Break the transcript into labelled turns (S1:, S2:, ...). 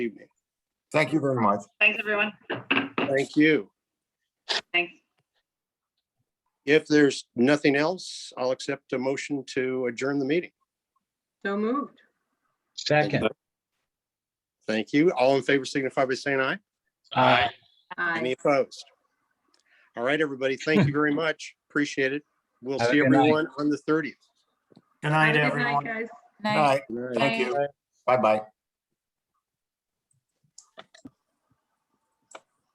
S1: evening.
S2: Thank you very much.
S3: Thanks, everyone.
S1: Thank you.
S3: Thanks.
S1: If there's nothing else, I'll accept a motion to adjourn the meeting.
S4: So moved.
S5: Second.
S1: Thank you. All in favor signify by saying aye.
S5: Aye.
S4: Aye.
S1: Any opposed? All right, everybody. Thank you very much. Appreciate it. We'll
S5: Have a
S1: see
S5: good night.
S1: everyone on the 30th.
S6: Good
S4: Have
S6: night,
S4: a good night,
S6: everyone.
S4: guys.
S2: All right, thank you. Bye-bye.